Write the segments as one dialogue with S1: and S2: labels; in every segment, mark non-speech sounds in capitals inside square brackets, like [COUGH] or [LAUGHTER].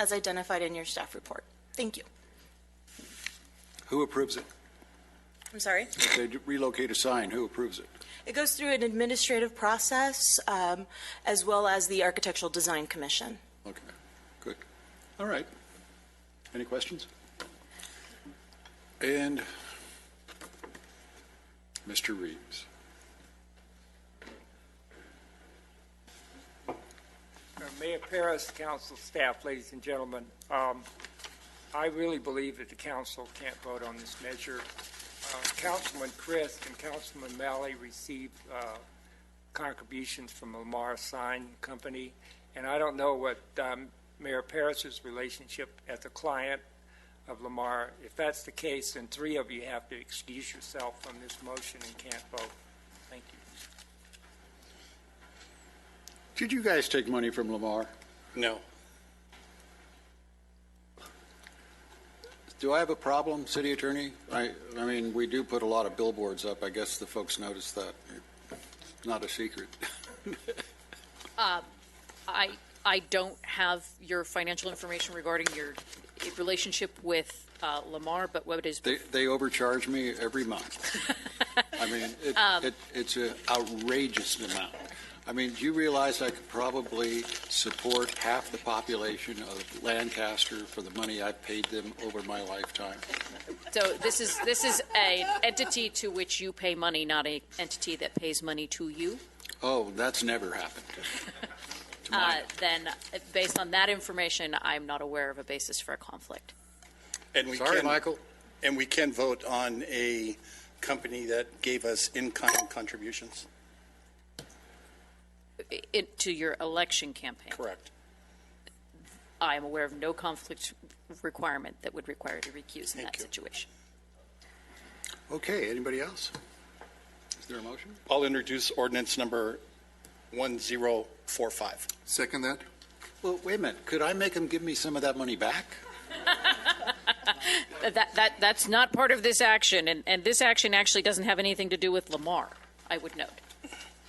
S1: as identified in your staff report. Thank you.
S2: Who approves it?
S1: I'm sorry?
S2: If they relocate a sign, who approves it?
S1: It goes through an administrative process, um, as well as the Architectural Design Commission.
S2: Okay, good. All right. Any questions? And Mr. Reeves.
S3: Uh, Mayor Paris, council staff, ladies and gentlemen, um, I really believe that the council can't vote on this measure. Uh, Councilman Chris and Councilman Malley received uh, contributions from Lamar Sign Company, and I don't know what um, Mayor Paris's relationship as a client of Lamar. If that's the case, then three of you have to excuse yourself from this motion and can't vote. Thank you.
S2: Did you guys take money from Lamar?
S4: No.
S2: Do I have a problem, city attorney? I, I mean, we do put a lot of billboards up. I guess the folks noticed that. Not a secret. [LAUGHS]
S5: I, I don't have your financial information regarding your relationship with uh, Lamar, but what it is,
S2: They, they overcharge me every month.
S5: [LAUGHS]
S2: I mean, it,
S5: Um,
S2: it, it's an outrageous amount. I mean, do you realize I could probably support half the population of Lancaster for the money I've paid them over my lifetime?
S5: so this is, this is an entity to which you pay money, not a entity that pays money to you.
S2: Oh, that's never happened. To
S5: Uh,
S2: my-
S5: Then, uh, based on that information, I'm not aware of a basis for a conflict.
S4: And we
S2: Sorry,
S4: can-
S2: Michael.
S4: And we can vote on a company that gave us in-kind contributions.
S5: I- It, to your election campaign.
S4: Correct.
S5: I am aware of no conflict requirement that would require you to recuse in
S4: Thank
S5: that
S4: you.
S5: situation.
S2: Okay, anybody else? Is there a motion?
S4: I'll introduce ordinance number 1045.
S6: Second that?
S2: Well, wait a minute. Could I make them give me some of that money back?
S5: That, that, that's not part of this action, and, and this action actually doesn't have anything to do with Lamar, I would note.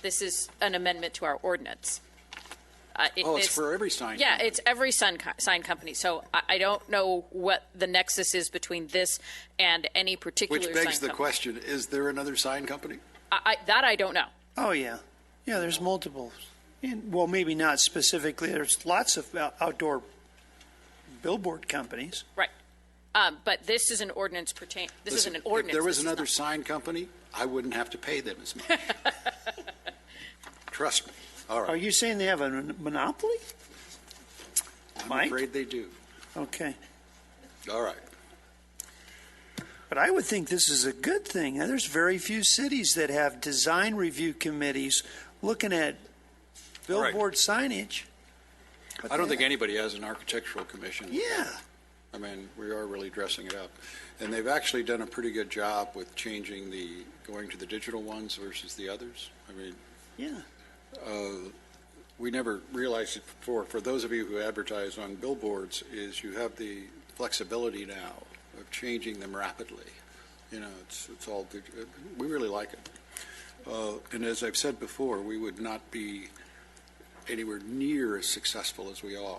S5: This is an amendment to our ordinance. Uh, it-
S2: Oh, it's
S5: this-
S2: for every sign
S5: Yeah,
S2: company.
S5: it's every sign, co- sign company, so I, I don't know what the nexus is between this and any particular
S2: Which
S5: sign
S2: begs the
S5: company.
S2: question, is there another sign company?
S5: I, I- that I don't know.
S7: Oh, yeah. Yeah, there's multiples. And, well, maybe not specifically. There's lots of out- outdoor billboard companies.
S5: Right. Um, but this is an ordinance pertain, this isn't
S2: Listen,
S5: an ordinance.
S2: If there
S5: this
S2: was
S5: is
S2: another
S5: not-
S2: sign company, I wouldn't have to pay them as
S5: [LAUGHS]
S2: much. Trust me. All
S7: Are
S2: right.
S7: you saying they have a mon- monopoly?
S2: I'm
S7: Mike?
S2: afraid they do.
S7: Okay.
S2: All right.
S7: But I would think this is a good thing. Now, There's very few cities that have design review committees looking at
S2: Right.
S7: billboard signage.
S2: I don't think anybody has an architectural commission.
S7: Yeah.
S2: I mean, we are really dressing it up. And they've actually done a pretty good job with changing the, going to the digital ones versus the others. I mean,
S7: Yeah.
S2: uh, we never realized it before, for those of you who advertise on billboards, is you have the flexibility now of changing them rapidly. You know, it's, it's all, dig- we really like it. Uh, And as I've said before, we would not be anywhere near as successful as we are,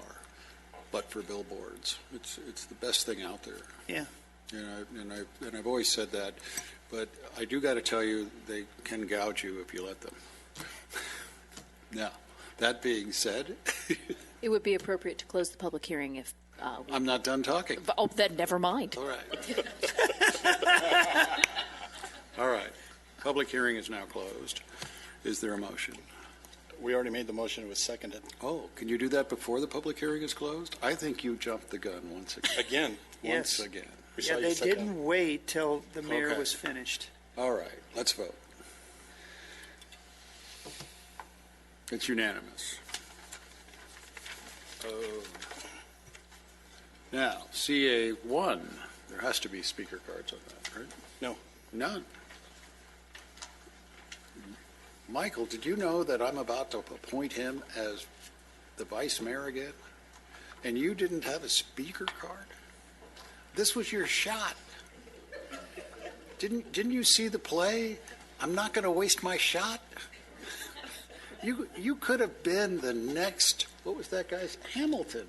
S2: but for billboards. It's, it's the best thing out there.
S7: Yeah.
S2: You know, and I, and I've always said that, but I do got to tell you, they can gouge you if you let them. [LAUGHS] Now, that being said, [LAUGHS]
S5: It would be appropriate to close the public hearing if, uh, we-
S2: I'm not done talking.
S5: but- oh, then never mind.
S2: All right. [LAUGHS] All right. Public hearing is now closed. Is there a motion?
S4: We already made the motion, it was seconded.
S2: Oh, can you do that before the public hearing is closed? I think you jumped the gun once again.
S4: Again,
S2: Once
S7: Yes.
S2: again.
S4: we saw
S7: Yeah,
S4: you
S7: they
S4: second.
S7: didn't wait till the mayor
S2: Okay.
S7: was finished.
S2: All right, let's vote. It's unanimous. Uh, Now, CA one, there has to be speaker cards on that, right?
S4: No.
S2: None. Michael, did you know that I'm about to appoint him as the vice mayor again? And you didn't have a speaker card? This was your shot. Didn't, didn't you see the play? I'm not going to waste my shot. You, you could have been the next, what was that guy's? Hamilton.